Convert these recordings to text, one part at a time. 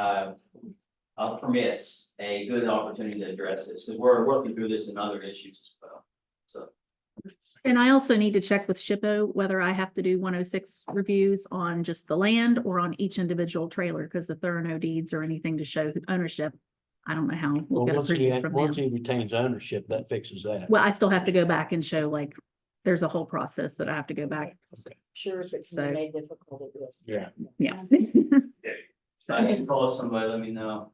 uh, uh, permits a good opportunity to address this, because we're working through this and other issues as well. And I also need to check with Shippo whether I have to do one oh six reviews on just the land or on each individual trailer, because if there are no deeds or anything to show ownership, I don't know how we'll Well, get once he, approval from once them. he retains ownership, that fixes that. Well, I still have to go back and show like, there's a whole process that I have to go back. Sure, if it's So- made difficult, it will. Yeah. Yeah. So I So, can call somebody, let me know.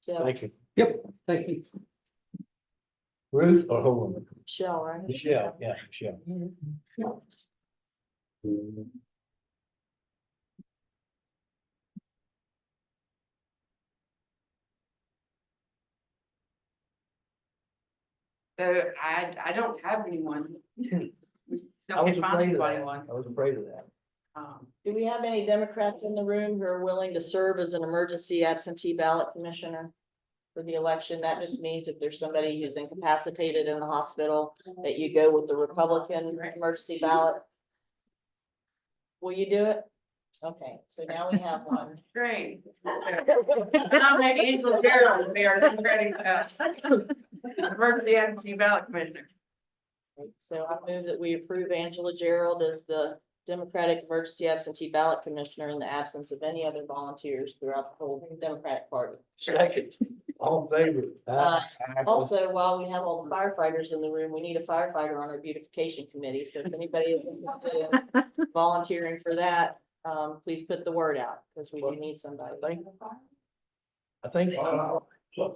So, Thank you. Yep, thank you. Ruth or Helen? Michelle, right? Michelle, yeah, Michelle. Mhm. So I, I don't have anyone. I Don't was get find afraid of anybody that. one. I was afraid of that. Um, Do we have any Democrats in the room who are willing to serve as an emergency absentee ballot commissioner? For the election, that just means if there's somebody who's incapacitated in the hospital, that you go with the Republican emergency ballot. Will you do it? Okay, so now we have one. Great. Nominate Angela Gerald to be our Democratic, uh, emergency absentee ballot commissioner. So I move that we approve Angela Gerald as the Democratic Emergency Absentee Ballot Commissioner in the absence of any other volunteers throughout the whole Democratic Party. Second, all in favor. Uh, Aye. Also, while we have all the firefighters in the room, we need a firefighter on our beautification committee, so if anybody is interested in volunteering for that, um, please put the word out, because we do need somebody. Thank I think,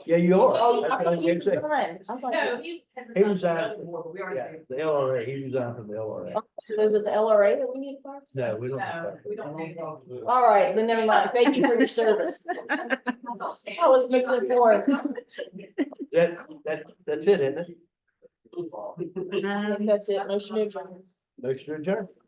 yeah, you Oh, are. you- That's I what I think you said. resigned. I'm like, He resigned. We Yeah, already. Oh. the LRA, he resigned from the LRA. So is it the LRA that we need? for? No, we don't. No, we don't need All right, then never mind. Thank you for your service. I was misinformed. That, that, that's it, isn't it? That's it, motion to adjourn. Um, Motion adjourned.